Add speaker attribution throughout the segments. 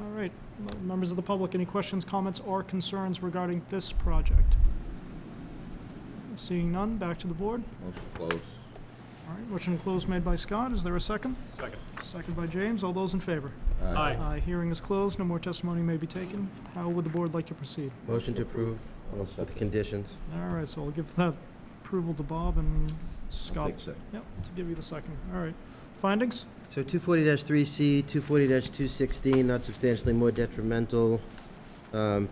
Speaker 1: All right, M- members of the public, any questions, comments, or concerns regarding this project? Seeing none, back to the board.
Speaker 2: Motion to close.
Speaker 1: All right, motion to close made by Scott, is there a second?
Speaker 3: Second.
Speaker 1: Second by James, all those in favor?
Speaker 3: Aye.
Speaker 1: Uh, hearing is closed, no more testimony may be taken. How would the board like to proceed?
Speaker 4: Motion to approve with conditions.
Speaker 1: All right, so I'll give that approval to Bob and Scott.
Speaker 2: take second.
Speaker 1: Yep, to give you the second, all right. Findings?
Speaker 4: So 240-3C, 240-216, not substantially more detrimental. Um,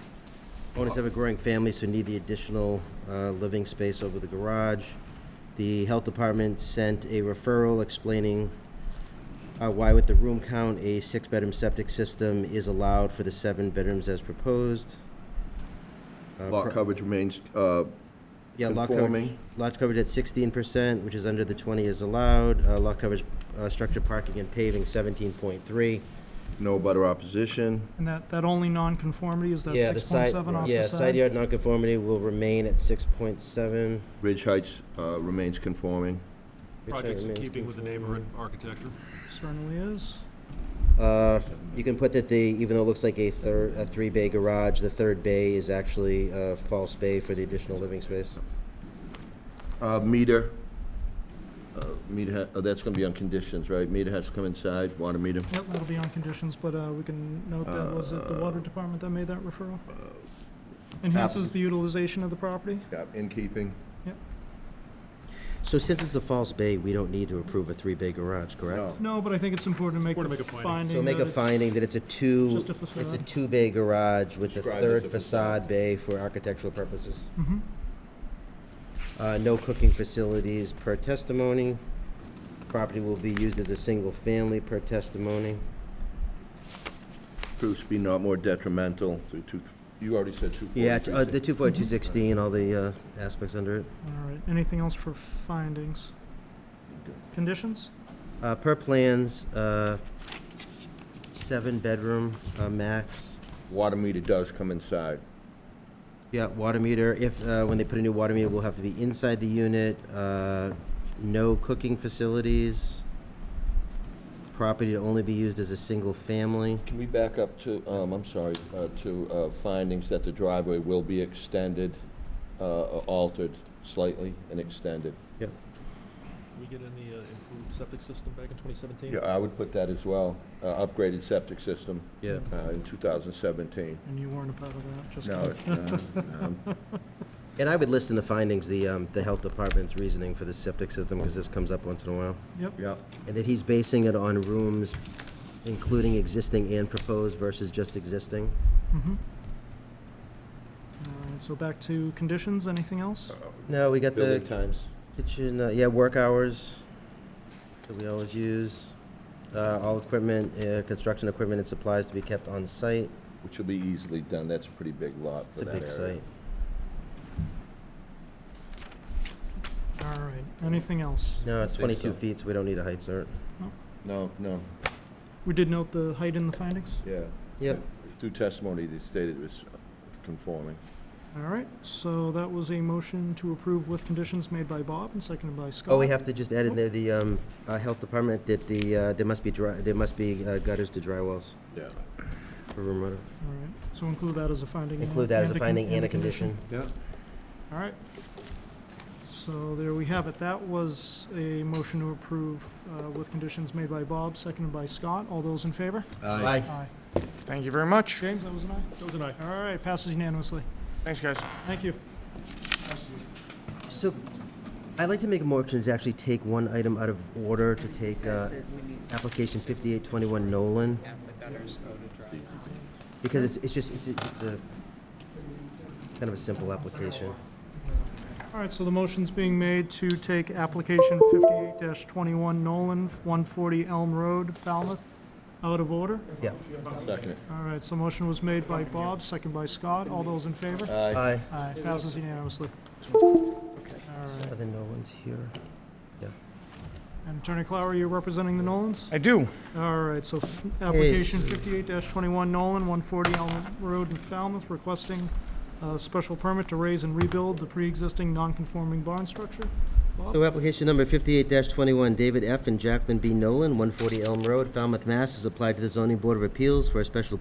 Speaker 4: Owners have a growing family, so need the additional uh, living space over the garage. The health department sent a referral explaining uh, why with the room count, a six-bedroom septic system is allowed for the seven bedrooms as proposed. Uh,
Speaker 2: Lot
Speaker 4: pro-
Speaker 2: coverage remains uh,
Speaker 4: Yeah, lot coverage,
Speaker 2: conforming.
Speaker 4: lot coverage at sixteen percent, which is under the twenty is allowed, uh, lot coverage, uh, structure parking and paving seventeen point three.
Speaker 2: No butter opposition.
Speaker 1: And that, that only nonconformity is that
Speaker 4: Yeah, the
Speaker 1: six point
Speaker 4: side,
Speaker 1: seven off the side?
Speaker 4: yeah, side yard nonconformity will remain at six point seven.
Speaker 2: Ridge Heights uh, remains conforming.
Speaker 3: Projects in keeping with the neighborhood architecture.
Speaker 1: Certainly is.
Speaker 4: Uh, you can put that the, even though it looks like a third, a three bay garage, the third bay is actually a false bay for the additional living space.
Speaker 2: Uh, Meter, uh, meter, ha- oh, that's going to be on conditions, right? Meter has to come inside, water meter.
Speaker 1: Yep, that'll be on conditions, but uh, we can note that, was it the
Speaker 4: Uh,
Speaker 1: water department that made that referral? Enhances the utilization of the property?
Speaker 2: Yeah, in keeping.
Speaker 4: So since it's a false bay, we don't need to approve a three bay garage, correct?
Speaker 2: No.
Speaker 1: No, but I think it's important to make
Speaker 3: Important to
Speaker 1: the
Speaker 3: make a finding.
Speaker 1: finding.
Speaker 4: So make
Speaker 1: that
Speaker 4: a
Speaker 1: it's-
Speaker 4: finding that it's a two,
Speaker 1: Just a
Speaker 4: it's a
Speaker 1: facade.
Speaker 4: two-bay garage with a
Speaker 2: Described as
Speaker 4: third
Speaker 2: a
Speaker 4: facade bay for architectural purposes.
Speaker 1: Mhm.
Speaker 4: Uh, no cooking facilities per testimony. Property will be used as a single family per testimony.
Speaker 2: Proves to be not more detrimental through two, you already said two.
Speaker 4: Yeah, t- uh, the two forty, two sixteen, all the, uh, aspects under it.
Speaker 1: All right, anything else for findings?
Speaker 2: Good.
Speaker 1: Conditions?
Speaker 4: Uh, per plans, uh, seven bedroom, uh, max.
Speaker 2: Water meter does come inside.
Speaker 4: Yeah, water meter, if, uh, when they put a new water meter, will have to be inside the unit, uh, no cooking facilities. Property to only be used as a single family.
Speaker 2: Can we back up to, um, I'm sorry, uh, to uh, findings that the driveway will be extended, uh, altered slightly and extended?
Speaker 4: Yep.
Speaker 3: we get in the uh, improved septic system back in 2017?
Speaker 2: Yeah, I would put that as well, uh, upgraded septic system.
Speaker 4: Yeah.
Speaker 2: Uh, in 2017.
Speaker 1: And you weren't a part of that, just
Speaker 2: No,
Speaker 1: kidding.
Speaker 2: it- no, no.
Speaker 4: And I would list in the findings the, um, the health department's reasoning for the septic system, because this comes up once in a while.
Speaker 1: Yep,
Speaker 2: yeah,
Speaker 4: And that he's basing it on rooms including existing and proposed versus just existing.
Speaker 1: mhm. All right, so back to conditions, anything else?
Speaker 4: No, we got
Speaker 2: building
Speaker 4: the
Speaker 2: times.
Speaker 4: kitchen, uh, yeah, work hours that we always use. Uh, all equipment, uh, construction equipment and supplies to be kept on site.
Speaker 2: Which will be easily done, that's a pretty big lot
Speaker 4: It's
Speaker 2: for
Speaker 4: a
Speaker 2: that
Speaker 4: big
Speaker 2: area.
Speaker 4: site.
Speaker 1: All right, anything else?
Speaker 4: No, it's
Speaker 2: I think
Speaker 4: twenty-two
Speaker 2: so.
Speaker 4: feet, so we don't need a height cert.
Speaker 2: No, no,
Speaker 1: We did note the height in the findings?
Speaker 2: yeah.
Speaker 4: Yep.
Speaker 2: Through testimony, they stated it was conforming.
Speaker 1: All right, so that was a motion to approve with conditions made by Bob and seconded by Scott.
Speaker 4: Oh, we have to just add in there the, um, uh, health department that the, uh, there must be dry, there must be uh, gutters to dry wells
Speaker 2: Yeah.
Speaker 4: for room rental.
Speaker 1: All right, so include that as a finding. and-
Speaker 4: Include that as a
Speaker 1: con-
Speaker 4: finding and a condition.
Speaker 2: Yeah.
Speaker 1: All right. So there we have it. That was a motion to approve uh, with conditions made by Bob, seconded by Scott. All those in favor?
Speaker 4: Aye.
Speaker 1: Aye.
Speaker 5: Thank you very much.
Speaker 1: James, that was an aye? That was an aye. All right, passes unanimously.
Speaker 5: Thanks, guys.
Speaker 1: Thank you.
Speaker 4: So, I'd like to make a motion to actually take one item out of order, to take uh,
Speaker 6: We need
Speaker 4: application 5821 Nolan,
Speaker 6: to have the gutters go to dry.
Speaker 4: because it's, it's just, it's a, it's a kind of a simple application.
Speaker 1: All right, so the motion's being made to take application fifty-eight twenty-one Nolan, one forty Elm Road, Falmouth, out of order.
Speaker 4: Yeah.
Speaker 2: Second it.
Speaker 1: All right, so motion was made by Bob, second by Scott. All those in favor?
Speaker 2: Aye.
Speaker 4: Aye.
Speaker 1: Aye, passes unanimously. All
Speaker 4: Are
Speaker 1: right.
Speaker 4: the Nolans here?
Speaker 1: And Attorney Clower, you're representing the Nolans?
Speaker 5: I do.
Speaker 1: All right, so f- application fifty-eight twenty-one Nolan, one forty Elm Road in Falmouth, requesting a special permit to raise and rebuild the pre-existing non-conforming barn structure. Bob?
Speaker 4: So application number 58-21, David F. and Jacqueline B. Nolan, 140 Elm Road, Falmouth, Mass., has applied to the zoning board of appeals for a special